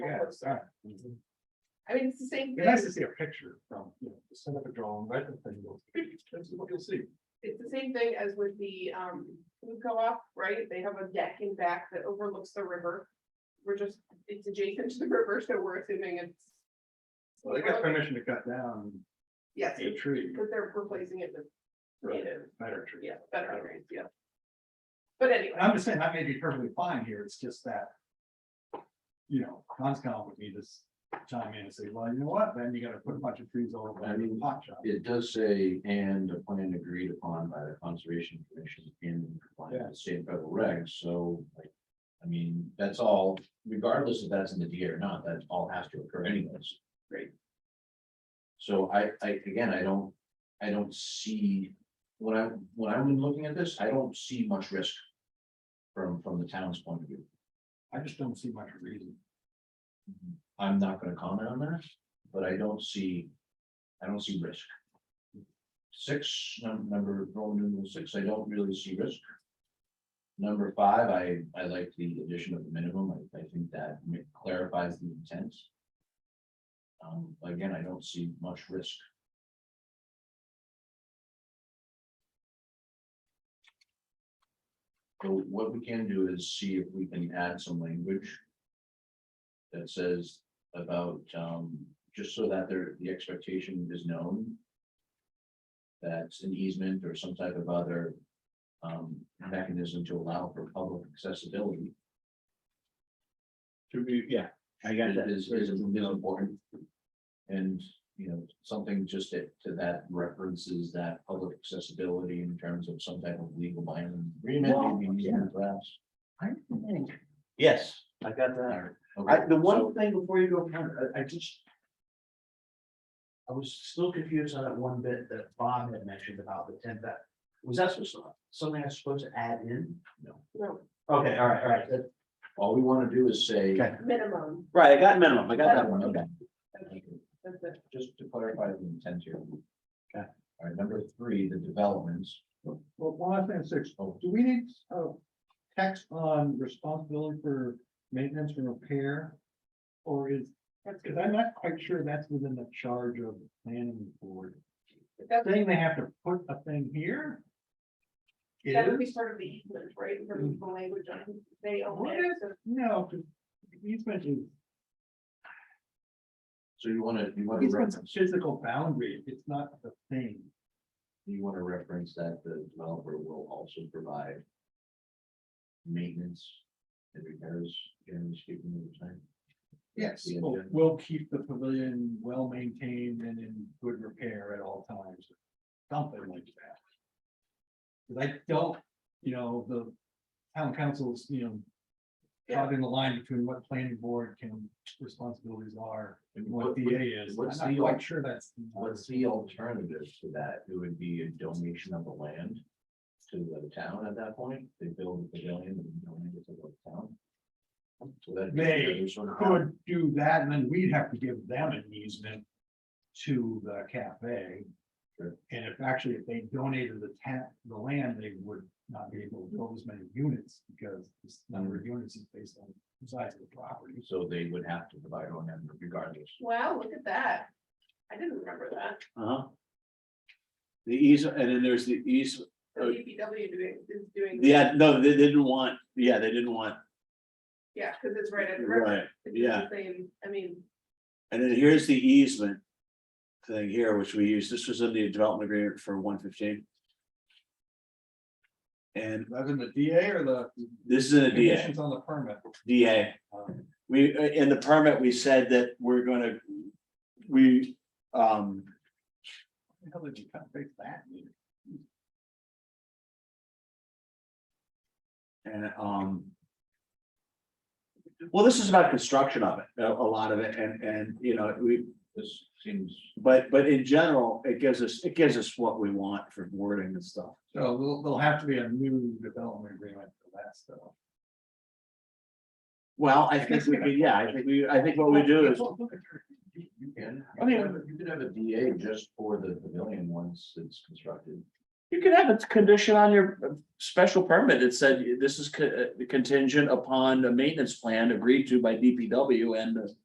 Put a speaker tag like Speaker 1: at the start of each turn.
Speaker 1: was that.
Speaker 2: Mm-hmm.
Speaker 3: I mean, it's the same
Speaker 1: Be
Speaker 3: thing,
Speaker 1: nice to see a picture from, you know, the set up a drawing, right, and then go, this is what you'll see.
Speaker 3: it's the same thing as with the um food co-op, right? They have a deck in back that overlooks the river. We're just, it's adjacent to the river, so we're assuming it's.
Speaker 1: Well, they got permission to cut down
Speaker 3: Yes,
Speaker 1: a tree,
Speaker 3: but they're replacing it with
Speaker 1: Right.
Speaker 3: native,
Speaker 1: better tree.
Speaker 3: yeah, better, trees, yeah. But anyway,
Speaker 1: And
Speaker 2: Um,
Speaker 1: I'm just saying, that may be perfectly fine here, it's just that. You know, Conscom would be just chime in and say, well, you know what, then you gotta put a bunch of trees all over
Speaker 4: I
Speaker 1: the
Speaker 2: Mm-hmm.
Speaker 4: mean-
Speaker 1: pot shop.
Speaker 4: It does say, and a plan agreed upon by the conservation commission in compliance with state and federal regs, so like. I mean, that's all, regardless if that's in the DA or not, that all has to occur anyways.
Speaker 3: Right.
Speaker 4: So I, I, again, I don't, I don't see, when I, when I'm looking at this, I don't see much risk. From, from the town's point of view,
Speaker 1: I just don't see much reason.
Speaker 4: I'm not gonna comment on that, but I don't see, I don't see risk. Six, num- number, Roman numeral six, I don't really see risk. Number five, I, I like the addition of the minimum, I, I think that ma- clarifies the intent. Um, again, I don't see much risk. So what we can do is see if we can add some language that says about, um, just so that there, the expectation is known. That's an easement or some type of other, um, mechanism to allow for public accessibility
Speaker 2: To be, yeah, I got that.
Speaker 4: is, is, is important. And, you know, something just to, to that references that public accessibility in terms of some type of legal binding
Speaker 2: Well,
Speaker 4: agreement. maybe easement perhaps.
Speaker 2: I think, yes, I got that.
Speaker 4: Or-
Speaker 2: I, the
Speaker 4: so-
Speaker 2: one thing before you go, Ken, I, I just. I was still confused on that one bit that Bob had mentioned about the ten that, was that supposed to, something I was supposed to add in? No.
Speaker 3: no,
Speaker 2: Okay, all right, all right, that-
Speaker 4: All we want to do is say.
Speaker 2: Okay.
Speaker 3: minimum,
Speaker 2: right, I got minimum, I got
Speaker 4: that
Speaker 2: that one,
Speaker 4: one,
Speaker 2: okay.
Speaker 4: okay.
Speaker 3: that's it.
Speaker 4: just to clarify the intent here.
Speaker 2: Okay.
Speaker 4: All right, number three, the developments.
Speaker 1: Well, one last thing, on six, do we need, uh, text on responsibility for maintenance and repair? Or is,
Speaker 3: That's
Speaker 1: cause
Speaker 3: good.
Speaker 1: I'm not quite sure that's within the charge of the planning board.
Speaker 3: That's-
Speaker 1: Saying they have to put a thing here? It
Speaker 3: That would be
Speaker 1: is?
Speaker 3: part of the easement, right, in terms of the language on, who they own
Speaker 1: What
Speaker 3: it, so
Speaker 1: No, 'cause easement is,
Speaker 4: So you want to, you want to
Speaker 1: easement's a
Speaker 4: reference,
Speaker 1: physical boundary, it's not the thing.
Speaker 4: you want to reference that the developer will also provide maintenance and repairs, generally speaking, over time.
Speaker 1: Yes.
Speaker 4: Yeah.
Speaker 1: We'll, we'll keep the pavilion well maintained and in good repair at all times, something like that. 'Cause I don't, you know, the town councils, you know.
Speaker 3: Yeah.
Speaker 1: Drawing the line between what planning board can responsibilities are and what
Speaker 4: What-
Speaker 1: DA is,
Speaker 4: what's
Speaker 1: I'm
Speaker 4: the
Speaker 1: not quite
Speaker 4: al-
Speaker 1: sure that's.
Speaker 4: What's the alternative to that? It would be a donation of the land to the town at that point. They build a pavilion and donate it to the town. So that.
Speaker 1: They Could do that, and then we'd have to give them an easement to the cafe.
Speaker 4: Sure.
Speaker 1: And if actually, if they donated the ta the land, they would not be able to build as many units, because this number of units is based on the size of the property.
Speaker 4: So they would have to provide O and M regardless.
Speaker 3: Wow, look at that. I didn't remember that.
Speaker 2: Uh-huh. The ease, and then there's the ease,
Speaker 3: The
Speaker 2: Oh.
Speaker 3: DPW E doing, is doing.
Speaker 2: yeah, no, they didn't want, yeah, they didn't want,
Speaker 3: Yeah, because it's right at the river.
Speaker 2: right.
Speaker 3: It's
Speaker 2: yeah.
Speaker 3: the Same, I mean,
Speaker 2: And then here's the easement thing here, which we use, this was in the development agreement for one fifteen. And
Speaker 1: That's in the DA or the
Speaker 2: this is in a DA,
Speaker 1: conditions on the permit.
Speaker 2: DA.
Speaker 1: Um,
Speaker 2: We, in the permit, we said that we're gonna, we, um,
Speaker 1: How did you cut fix that?
Speaker 2: and, um. Well, this is about construction of it, a, a lot of it, and, and, you know, we,
Speaker 4: This seems,
Speaker 2: but, but in general, it gives us, it gives us what we want for wording and stuff.
Speaker 1: So there'll, there'll have to be a new development agreement for that stuff.
Speaker 2: Well, I think we, could- yeah, I think we, I think what we do is.
Speaker 4: you can,
Speaker 1: I
Speaker 4: I
Speaker 1: mean-
Speaker 4: mean, you could have a DA just for the pavilion once it's constructed.
Speaker 2: You could have a condition on your uh, special permit that said this is co- uh, contingent upon a maintenance plan agreed to by DPW and the